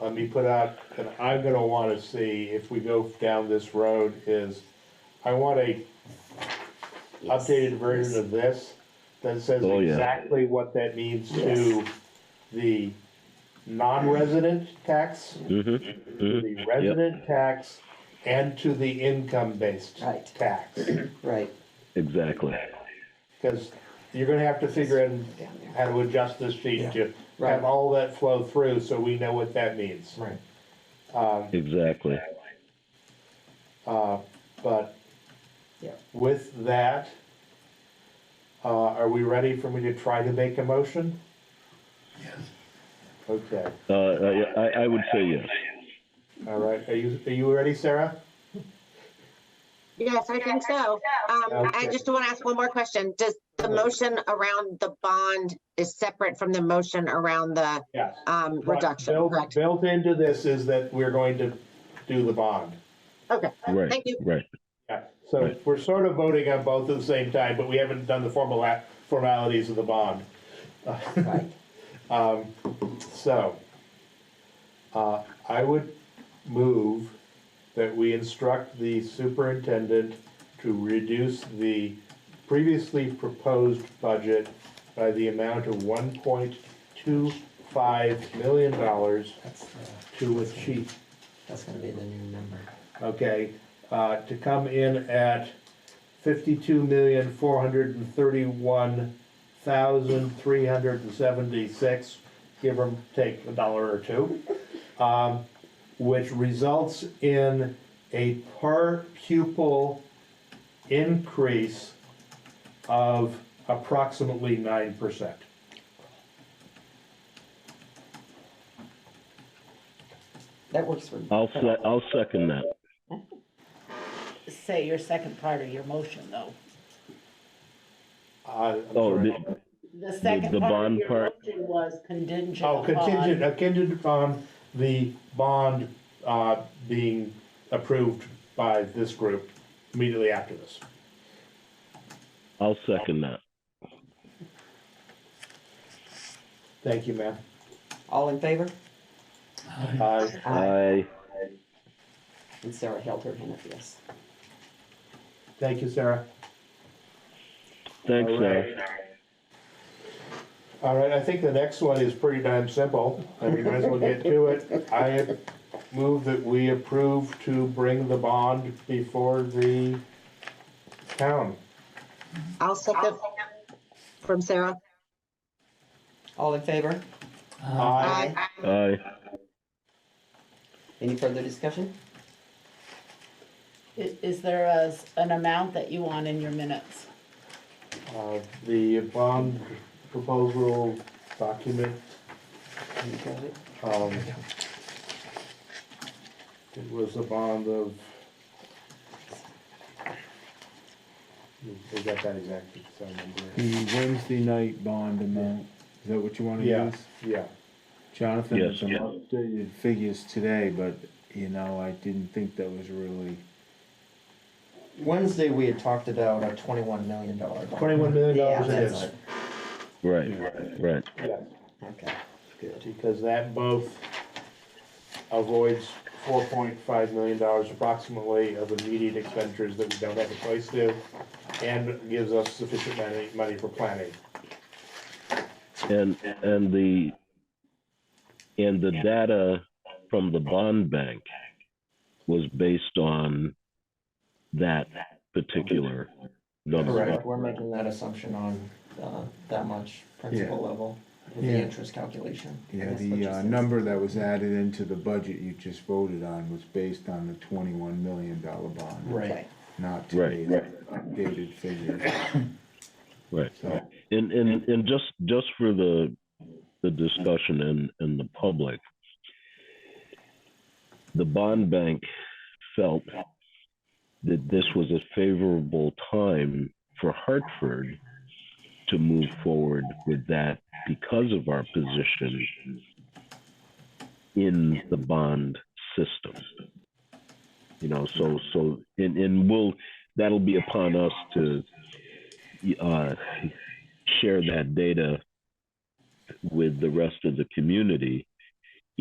let me put out, and I'm gonna wanna see if we go down this road is, I want a Yes. updated version of this that says Oh, yeah. exactly what that means to Yes. the non-resident tax, Mm-hmm. to the resident tax, and to the income-based Right. tax. Right, Exactly. Because you're gonna have to figure out down there. how to adjust this sheet to Right. have all that flow through, so we know what that means. Right. Um, Exactly. uh, but Yeah. with that, uh, are we ready for me to try to make a motion? Yes. Okay, Uh, I, I- I would say yes. all right, are you, are you ready, Sarah? Yes, I think so. Um, I Okay. just want to ask one more question. Does the Okay. motion around the bond is separate from the motion around the, Yes. um, reduction, Built- correct? Built into this is that we're going to do the bond. Okay, Right, thank you. right. Yeah, so Right. we're sort of voting on both at the same time, but we haven't done the formal act- formalities of the bond. right. Um, so, uh, I would move that we instruct the superintendent to reduce the previously proposed budget by the amount of one point two five million dollars That's, the- to achieve, that's gonna be the new number. okay? Uh, to come in at fifty-two million, four hundred and thirty-one thousand, three hundred and seventy-six, give or take a dollar or two. Um, which results in a per pupil increase of approximately nine percent. That works for. I'll se- I'll second that. say your second part of your motion, though. Oh, the- The second the part bond of your part- motion was contingent Oh, contingent, upon. uh, contingent upon the bond, uh, being approved by this group immediately after this. I'll second that. Thank you, ma'am. All in favor? Uh, I, And Sarah held her hand up, yes. thank you, Sarah. thanks, All right. Sarah. All right, I think the next one is pretty darn simple, and we might as well get to it. I move that we approve to bring the bond before the town. I'll second from Sarah. All in favor? Aye. Aye. I, Any further discussion? Is, is there a s an amount that you want in your minutes? Uh, the bond proposal document, You got it? um, it was a bond of, they got that exactly, so I remember. The Wednesday night bond amount, is that what you wanna Yeah, use? yeah. Jonathan, Yes, some yeah. updated figures today, but, you know, I didn't think that was really. Wednesday, we had talked about a twenty-one million dollar bond. Twenty-one million Yeah, dollars it that's is. it. right, right. Yes. Okay, good. because that both avoids four point five million dollars approximately of immediate expenditures that we don't have a place to, and gives us sufficient money, money for planning. And, and the, and the data from the bond bank was based on that particular number. Correct, we're making that assumption on, uh, that much principal level with the Yeah. interest calculation. I Yeah, guess what the, you uh, said. number that was added into the budget you just voted on was based on the twenty-one million dollar bond. Right, Not Right, today's updated figure, Right. so, And, and, and just, just for the, the discussion and, and the public, the bond bank felt that this was a favorable time for Hartford to move forward with that because of our position in the bond system. You know, so, so, and, and we'll, that'll be upon us to, uh, share that data with the rest of the community